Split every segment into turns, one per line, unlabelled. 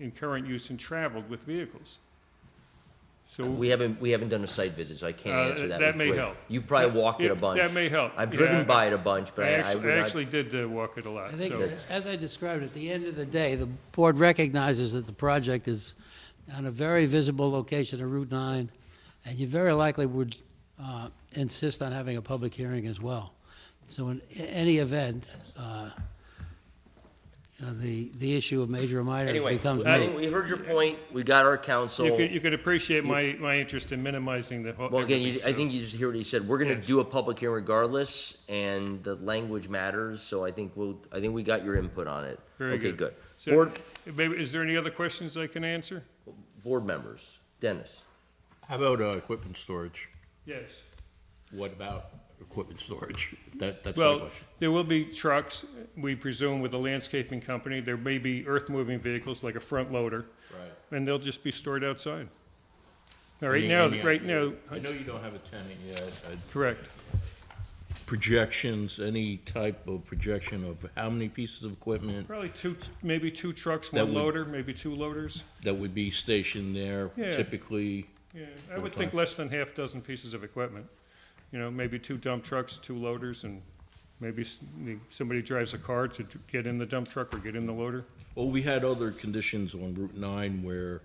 in current use and traveled with vehicles. So,
We haven't, we haven't done a site visit, so I can't
Uh,
answer that.
that
with
may
great-
help.
You probably walked it a
It-
bunch.
that may help,
I've
yeah.
driven by it a bunch, but
I
I, I would
actually, I
not.
actually did uh, walk it a lot,
I think,
so,
as I described, at the end of the day, the board recognizes that the project is on a very visible location of Route 9, and you very likely would uh, insist on having a public hearing as well. So in a- any event, uh, you know, the, the issue of major or minor
Anyway,
becomes
we-
moot.
we heard your point, we got our counsel.
you could, you could appreciate my, my interest in minimizing the whole.
Well, again, you,
everything,
I
so-
think you just hear what he said. We're gonna
Yes.
do a public hearing regardless, and the language matters, so I think we'll, I think we got your input on it.
Very
Okay,
good.
good.
So,
Board,
maybe- is there any other questions I can answer?
board members, Dennis,
How about uh, equipment storage?
Yes.
What about equipment storage? That, that's my
Well,
question.
there will be trucks, we presume, with a landscaping company. There may be earth-moving vehicles like a front loader.
Right.
And they'll just be stored outside. Now, right
Any-
now,
any
right now,
idea? I know you don't have a tenant yet. uh,
correct.
Projections, any type of projection of how many pieces of equipment
Probably two, maybe two trucks,
That
one
would-
loader, maybe two loaders.
that would be stationed there
Yeah.
typically?
Yeah, I would think
Okay.
less than half dozen pieces of equipment. You know, maybe two dump trucks, two loaders, and maybe s- somebody drives a car to d- get in the dump truck or get in the loader.
Well, we had other conditions on Route 9 where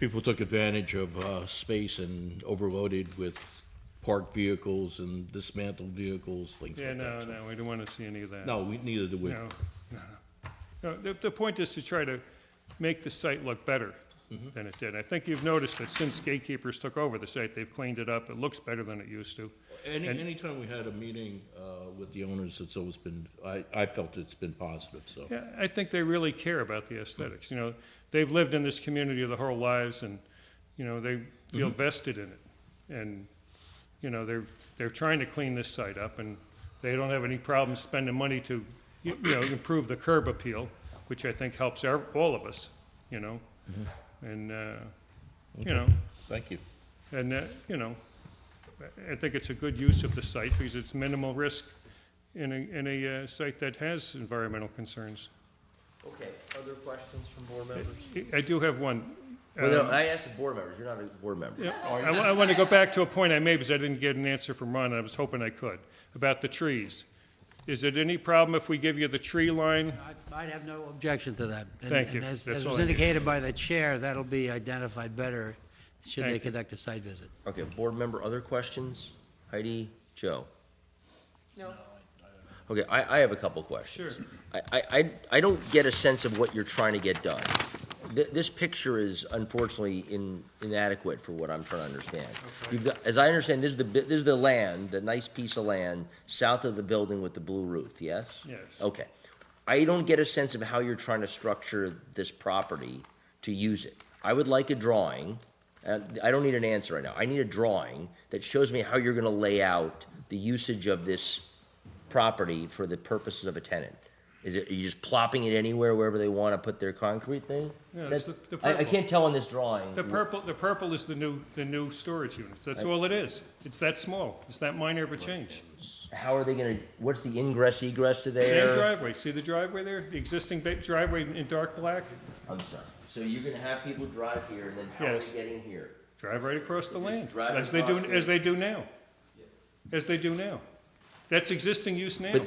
people took advantage of uh, space and overloaded with parked vehicles and dismantled vehicles, things
Yeah,
like
no,
that.
no, we don't want to see any of that.
No, we needed to.
No, no, no. No, the, the point is to try to make the site look better than it did. I think you've noticed that since gatekeepers took over the site, they've cleaned it up. It looks better than it used to.
Any,
And-
anytime we had a meeting, uh, with the owners, it's always been, I, I felt it's been positive, so.
Yeah, I think they really care about the aesthetics, you know. They've lived in this community their whole lives and, you know, they feel vested in it. And, you know, they're, they're trying to clean this site up and they don't have any problem spending money to, you you know, improve the curb appeal, which I think helps our, all of us, you know? And, uh, you know,
Thank you.
and, uh, you know, I- I think it's a good use of the site because it's minimal risk in a, in a uh, site that has environmental concerns.
okay, other questions from board members?
I do have one.
Well, no,
Um,
I asked the board members, you're not a board member.
yeah, I want to go back to a point I made because I didn't get an answer from Ron, and I was hoping I could, about the trees. Is it any problem if we give you the tree line?
I- I'd have no objection to that. And-
Thank you.
And as
That's
as
all
was
I need.
indicated by the chair, that'll be identified better should
Thank
they
you.
conduct a site visit.
Okay, board member, other questions? Heidi, Joe? No. Okay, I, I have a couple questions.
Sure.
I, I, I- I don't get a sense of what you're trying to get done. Th- This picture is unfortunately in- inadequate for what I'm trying to understand. You've got, as I understand, this is the, bi- this is the land, the nice piece of land, south of the building with the blue roof, yes?
Yes.
Okay. I don't get a sense of how you're trying to structure this property to use it. I would like a drawing, and I don't need an answer right now. I need a drawing that shows me how you're gonna lay out the usage of this property for the purposes of a tenant? Is it, are you just plopping it anywhere wherever they want to put their concrete thing?
Yeah, it's
That's-
the- the
I, I
purple.
can't tell on this drawing.
The purple, the purple is the new, the new storage units. That's all it is. It's that small. It's that minor of a change.
How are they gonna, what's the ingress egress to
Same
there?
driveway. See the driveway there? The existing ba- driveway in dark black?
I'm sorry. So you're gonna have people drive here and then how are
Yes.
they getting here?
Drive right across the land,
drive
as they do,
across the-
as they do now. As they do now. That's existing use now.
But-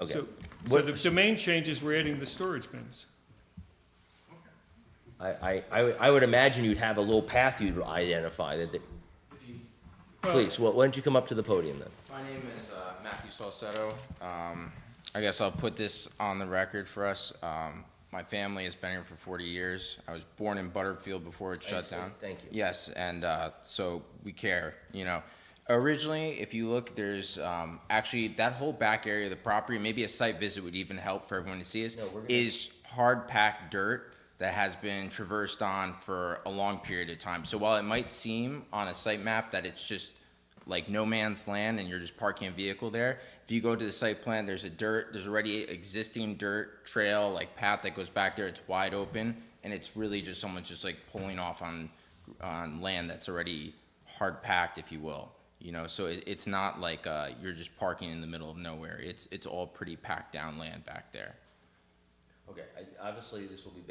Okay,
So, so the, the main change is we're adding the storage bins.
I, I, I would- I would imagine you'd have a little path you'd identify that, that,
If you,
please, why don't you come up to the podium then?
my name is uh, Matthew Salcedo. Um, I guess I'll put this on the record for us. Um, my family has been here for 40 years. I was born in Butterfield before it shut
see.
down.
Thank you.
Yes, and uh, so we care. You know, originally, if you look, there's um, actually that whole back area of the property. Maybe a site visit would even help for everyone to see. Is
we're gonna-
is hard packed dirt that has been traversed on for a long period of time. So while it might seem on a site map that it's just like no man's land and you're just parking a vehicle there, if you go to the site plan, there's a dirt, there's already existing dirt trail like path that goes back there. It's wide open and it's really just someone's just like pulling off on on land that's already hard packed, if you will. You know, so it, it's not like uh, you're just parking in the middle of nowhere. It's it's all pretty packed down land back there.
Okay, I, obviously this will be